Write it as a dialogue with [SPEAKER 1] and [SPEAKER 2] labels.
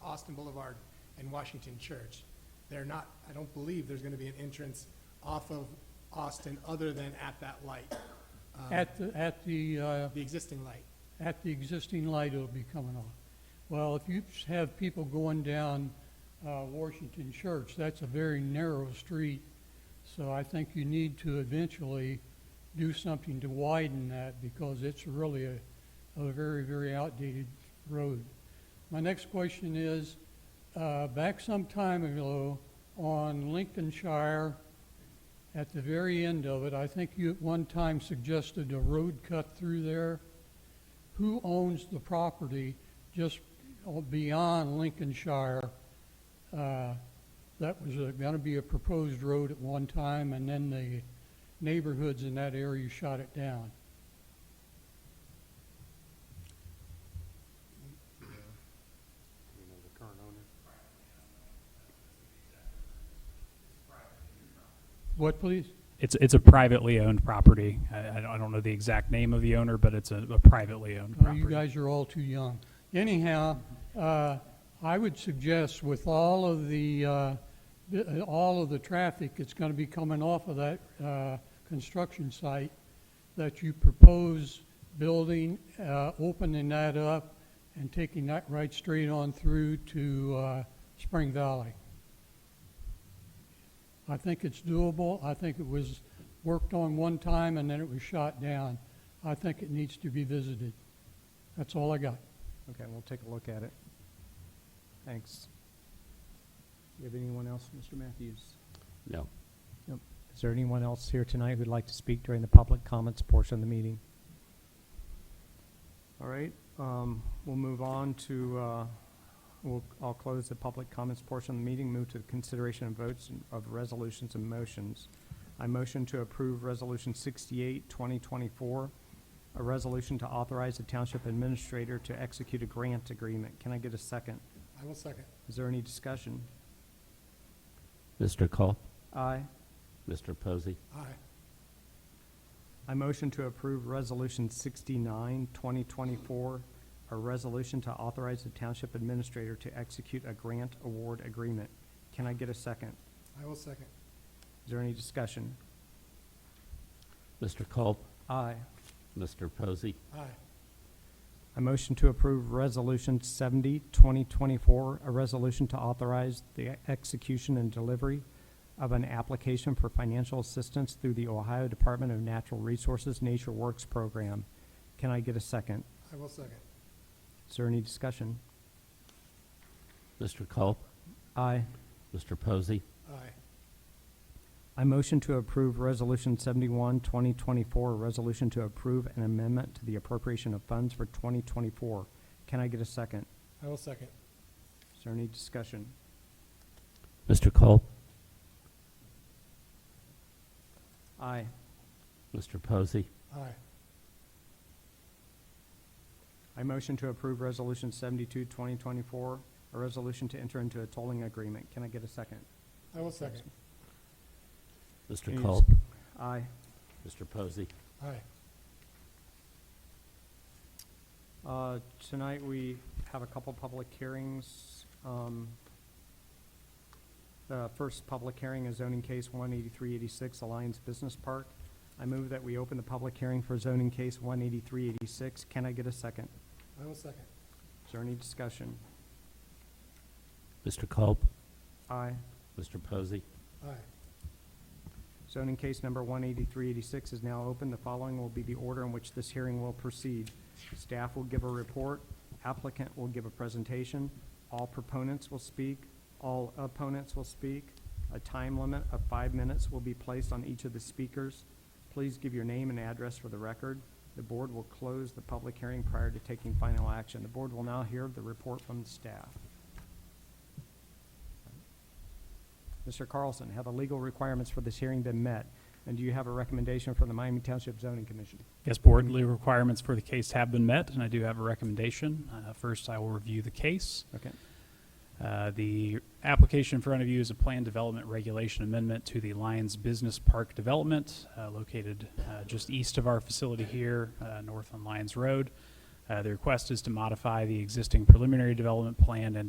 [SPEAKER 1] Boston Boulevard and Washington Church. They're not, I don't believe there's going to be an entrance off of Austin other than at that light, uh,
[SPEAKER 2] At the, at the, uh,
[SPEAKER 1] the existing light.
[SPEAKER 2] at the existing light it'll be coming on. Well, if you have people going down uh, Washington Church, that's a very narrow street, so I think you need to eventually do something to widen that because it's really a, a very, very outdated road. My next question is, uh, back some time ago on Lincolnshire, at the very end of it, I think you at one time suggested a road cut through there who owns the property just beyond Lincolnshire? uh, That was going to be a proposed road at one time, and then the neighborhoods in that area shot it down.
[SPEAKER 3] you know, the current owner.
[SPEAKER 2] What, please?
[SPEAKER 4] It's, it's a privately owned property. I, I don't- I don't know the exact name of the owner, but it's a, a privately owned
[SPEAKER 2] Oh,
[SPEAKER 4] property.
[SPEAKER 2] You guys are all too young. Anyhow, uh, I would suggest with all of the, uh, the- uh, all of the traffic that's going to be coming off of that uh, construction site, that you propose building, uh, opening that up and taking that right straight on through to uh, Spring Valley. I think it's doable. I think it was worked on one time and then it was shot down. I think it needs to be visited. That's all I got.
[SPEAKER 5] Okay, we'll take a look at it. Thanks. Do you have anyone else, Mr. Matthews?
[SPEAKER 6] No.
[SPEAKER 5] Nope. Is there anyone else here tonight who'd like to speak during the public comments portion of the meeting? All right, um, we'll move on to, uh, we'll, I'll close the public comments portion of the meeting, move to the consideration and votes and- of resolutions and motions. I motion to approve Resolution 68, 2024, a resolution to authorize the township administrator to execute a grant agreement. Can I get a second?
[SPEAKER 1] I will second.
[SPEAKER 5] Is there any discussion?
[SPEAKER 6] Mr. Culp,
[SPEAKER 5] Aye.
[SPEAKER 6] Mr. Posey,
[SPEAKER 1] Aye.
[SPEAKER 5] I motion to approve Resolution 69, 2024, a resolution to authorize the township administrator to execute a grant award agreement. Can I get a second?
[SPEAKER 1] I will second.
[SPEAKER 5] Is there any discussion?
[SPEAKER 6] Mr. Culp,
[SPEAKER 5] Aye.
[SPEAKER 6] Mr. Posey,
[SPEAKER 1] Aye.
[SPEAKER 5] I motion to approve Resolution 70, 2024, a resolution to authorize the execution and delivery of an application for financial assistance through the Ohio Department of Natural Resources Nature Works Program. Can I get a second?
[SPEAKER 1] I will second.
[SPEAKER 5] Is there any discussion?
[SPEAKER 6] Mr. Culp,
[SPEAKER 5] Aye.
[SPEAKER 6] Mr. Posey,
[SPEAKER 1] Aye.
[SPEAKER 5] I motion to approve Resolution 71, 2024, a resolution to approve an amendment to the appropriation of funds for 2024. Can I get a second?
[SPEAKER 1] I will second.
[SPEAKER 5] Is there any discussion?
[SPEAKER 6] Mr. Culp,
[SPEAKER 5] Aye.
[SPEAKER 6] Mr. Posey,
[SPEAKER 1] Aye.
[SPEAKER 5] I motion to approve Resolution 72, 2024, a resolution to enter into a tolling agreement. Can I get a second?
[SPEAKER 1] I will second.
[SPEAKER 6] Mr.
[SPEAKER 5] Any
[SPEAKER 6] Culp,
[SPEAKER 5] Aye.
[SPEAKER 6] Mr. Posey.
[SPEAKER 1] Aye.
[SPEAKER 5] Uh, Tonight, we have a couple public hearings. Um, The first public hearing is zoning case 18386 Alliance Business Park. I move that we open the public hearing for zoning case 18386. Can I get a second?
[SPEAKER 1] I will second.
[SPEAKER 5] Is there any discussion?
[SPEAKER 6] Mr. Culp,
[SPEAKER 5] Aye.
[SPEAKER 6] Mr. Posey,
[SPEAKER 1] Aye.
[SPEAKER 5] Zoning case number 18386 is now open. The following will be the order in which this hearing will proceed. Staff will give a report, applicant will give a presentation, all proponents will speak, all opponents will speak. A time limit of five minutes will be placed on each of the speakers. Please give your name and address for the record. The board will close the public hearing prior to taking final action. The board will now hear the report from the staff. Mr. Carlson, have the legal requirements for this hearing been met? And do you have a recommendation from the Miami Township Zoning Commission?
[SPEAKER 4] Yes, board legal requirements for the case have been met, and I do have a recommendation. Uh, first, I will review the case.
[SPEAKER 5] Okay.
[SPEAKER 4] Uh, The application in front of you is a plan development regulation amendment to the Lions Business Park development uh, located uh, just east of our facility here, uh, north on Lions Road. Uh, The request is to modify the existing preliminary development plan and